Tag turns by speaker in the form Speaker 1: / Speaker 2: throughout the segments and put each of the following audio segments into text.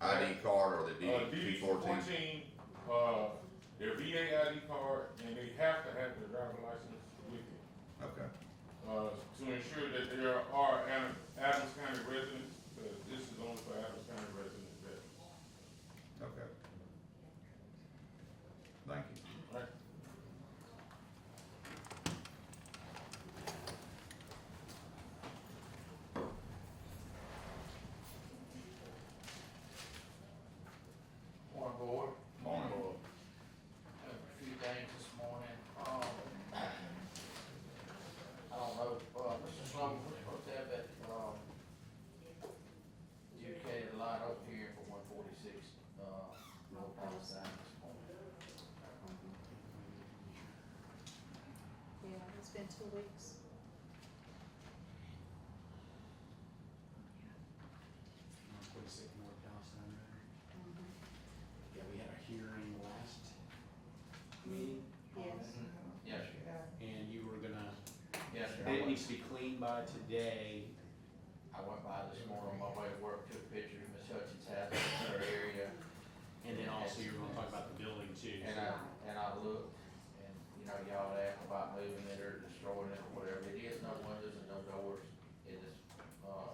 Speaker 1: ID card or the
Speaker 2: Uh,
Speaker 1: DD
Speaker 2: DD
Speaker 1: two fourteen?
Speaker 2: fourteen, uh, their VA ID card, and they have to have their driver license with them.
Speaker 1: Okay,
Speaker 2: uh, to ensure that there are Ad- Adams County residents, because this is only for Adams County residents, that,
Speaker 1: okay. Thank you.
Speaker 2: right?
Speaker 3: Morning, board.
Speaker 1: Morning.
Speaker 3: Have A few things this morning, um, I don't know, if, uh, Mr. Sloan, we're supposed to have that, um, dedicated line up here for one forty-six, uh, little pound sign this morning.
Speaker 4: Um, Yeah, it's been two weeks.
Speaker 5: One forty-six North Palestine Road. Yeah, we had a hearing last meeting.
Speaker 3: Mm-hmm.
Speaker 5: on
Speaker 4: Yes.
Speaker 5: that,
Speaker 3: Yes, sir.
Speaker 5: And you were gonna,
Speaker 3: yes, sir. I
Speaker 5: it
Speaker 3: went-
Speaker 5: needs to be cleaned by today.
Speaker 3: I went by this morning on my way to work, took a picture of Miss Hutchins' house in her area,
Speaker 5: And then also you were gonna talk about the building too.
Speaker 3: And I, and I looked, and, you know, y'all asked about moving it or destroying it or whatever, it is no windows and no doors, it is, uh,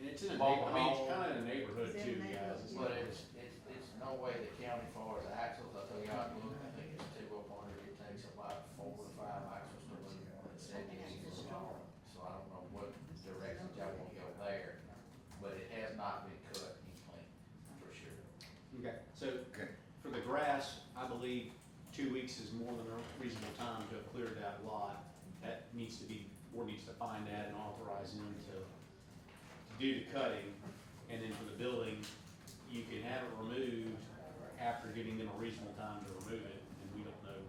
Speaker 5: And it's in a, neigh-
Speaker 3: Mobile
Speaker 5: I mean, it's
Speaker 3: home.
Speaker 5: kinda in a neighborhood
Speaker 4: It's in
Speaker 5: too,
Speaker 4: the
Speaker 5: guys. It's
Speaker 3: but
Speaker 5: not-
Speaker 3: it's, it's, it's no way the county far as axles, I tell y'all, I looked, I think it's two up under, it takes about four or five axles to move one, and that gets it long, so I don't know what direction y'all will go there, but it has not been cut and cleaned, for sure.
Speaker 5: Okay, so
Speaker 1: Okay.
Speaker 5: for the grass, I believe two weeks is more than a reasonable time to have cleared that lot. That needs to be, board needs to find that and authorize them to, to do the cutting. And then for the building, you can have it removed after giving them a reasonable time to remove it, and we don't know.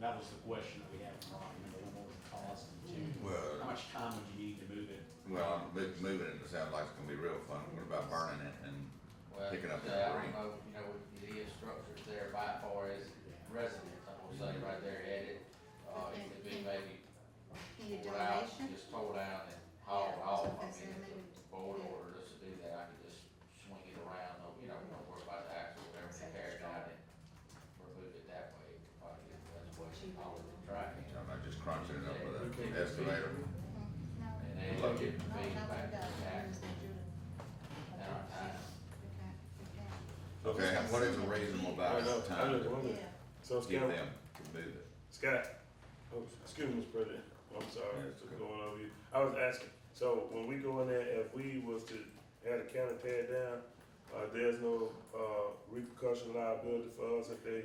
Speaker 5: That was the question that we had from Rocky, number one, what was the cost, and two, how
Speaker 1: Well,
Speaker 5: much time would you need to move it?
Speaker 1: well, I'm mo- moving it, it sounds like it's gonna be real fun. What about burning it and,
Speaker 3: Well,
Speaker 1: Picking up the
Speaker 3: yeah, I
Speaker 1: debris.
Speaker 3: don't know, you know, with the structures there by far as residents, I will say right there at it, uh, it could be maybe
Speaker 4: Can you
Speaker 3: pulled out,
Speaker 4: donation?
Speaker 3: just tore down and
Speaker 4: Yeah,
Speaker 3: hauled off, I mean,
Speaker 4: that's what I
Speaker 3: if
Speaker 4: said,
Speaker 3: the board ordered us to do that, I could just swing it around, no- you know, we don't worry about the axle, whatever,
Speaker 4: Say
Speaker 3: and tear it
Speaker 4: it's
Speaker 3: down and remove it that way, It probably is the best way to haul it, right?
Speaker 1: you know, not just crunching it up with an excavator?
Speaker 4: Mhm. No,
Speaker 3: And then
Speaker 1: Look.
Speaker 3: it'll get
Speaker 4: no,
Speaker 3: paid
Speaker 4: no,
Speaker 3: back to
Speaker 4: it
Speaker 3: the
Speaker 4: doesn't.
Speaker 3: tax.
Speaker 4: It's not Judah.
Speaker 3: And our time.
Speaker 4: We can't- we can't.
Speaker 1: Okay, and what is a reasonable
Speaker 6: I
Speaker 1: about
Speaker 6: know, I
Speaker 1: time
Speaker 6: know,
Speaker 1: to
Speaker 6: woman.
Speaker 4: Yeah,
Speaker 6: So
Speaker 1: get
Speaker 6: Scott,
Speaker 1: them to move it?
Speaker 6: Scott, oh, excuse me, Mr. President, I'm sorry,
Speaker 1: Yeah, it's
Speaker 6: for
Speaker 1: good.
Speaker 6: going over you. I was asking, so when we go in there, if we was to have the county tear it down, uh, there's no, uh, repercussion liability for us if they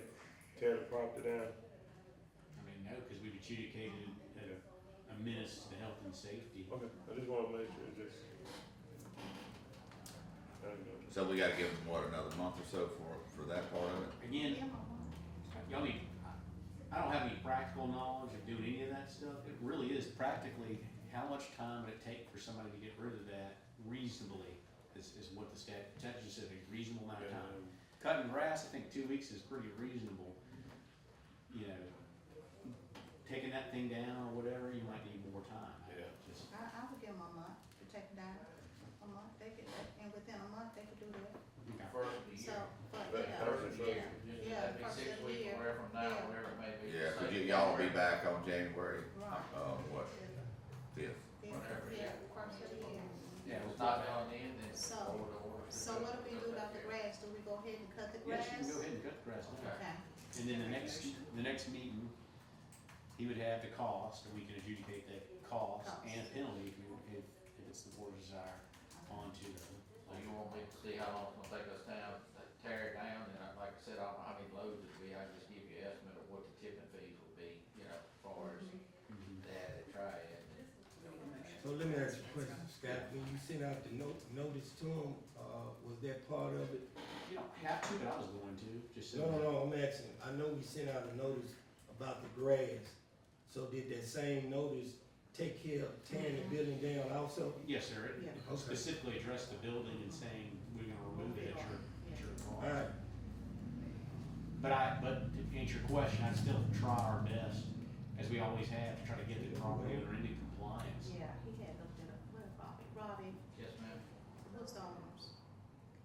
Speaker 6: tear the property down?
Speaker 5: I mean, no, because we've adjudicated it a- a menace to the health and safety.
Speaker 6: Okay, I just wanna make sure, just. I don't know.
Speaker 1: So we gotta give them, what, another month or so for, for that part of it?
Speaker 5: Again,
Speaker 4: Yeah, Mama.
Speaker 5: Y'all need, I don't have any practical knowledge of doing any of that stuff. It really is practically, how much time would it take for somebody to get rid of that reasonably is, is what the stat, statute says, a reasonable amount of time. Cutting grass, I think two weeks is pretty reasonable. You know, taking that thing down or whatever, you might need more time.
Speaker 6: Yeah.
Speaker 5: Just-
Speaker 4: I, I would give them a month to take it down, a month, they could, and within a month, they could do that,
Speaker 5: okay.
Speaker 3: First of the
Speaker 4: so,
Speaker 3: year.
Speaker 4: but,
Speaker 6: But
Speaker 4: yeah,
Speaker 6: first-
Speaker 3: First of the year, just
Speaker 4: Yeah,
Speaker 3: that'd be
Speaker 4: first
Speaker 3: six
Speaker 4: of the
Speaker 3: weeks,
Speaker 4: year.
Speaker 3: or whatever, from now,
Speaker 4: Yeah.
Speaker 3: whatever it may be.
Speaker 1: Yeah,
Speaker 3: Same
Speaker 1: could you, y'all be
Speaker 3: program.
Speaker 1: back on January,
Speaker 4: right.
Speaker 1: uh, what, fifth?
Speaker 4: Then,
Speaker 3: Whatever,
Speaker 4: yeah,
Speaker 3: yeah.
Speaker 4: first of the year.
Speaker 3: Yeah, if it's not done then, then.
Speaker 4: So-
Speaker 3: forward order.
Speaker 4: So what do we do about the grass, do we go ahead and cut the grass?
Speaker 5: Yes, you can go ahead and cut the grass now.
Speaker 3: Okay.
Speaker 4: Okay.
Speaker 5: And then the next, the next meeting, he would have the cost, and we can adjudicate that cost and penalty if, we- if, if it's the board's desire onto
Speaker 3: So you
Speaker 5: the.
Speaker 3: want me to see how long it's gonna take us down, to tear it down, and I- like I said, I don't know how many loads it'd be, I can just give you an estimate of what the tipping fees would be, you know, as far as
Speaker 4: Mm-hmm.
Speaker 3: that, and try it.
Speaker 7: So let me ask you a question, Scott, when you sent out the note, notice to them, uh, was that part of it?
Speaker 5: You don't have to, but I was going to, just so.
Speaker 7: No, no, no, I'm asking, I know we sent out a notice about the grass, so did that same notice take care of tearing the building down also?
Speaker 5: Yes, sir, it
Speaker 4: Yeah.
Speaker 7: Okay.
Speaker 5: specifically addressed the building and saying, we're gonna remove it at your, at your cost.
Speaker 7: Alright,
Speaker 5: But I, but to answer your question, I'd still try our best, as we always have, to try to get the property owner into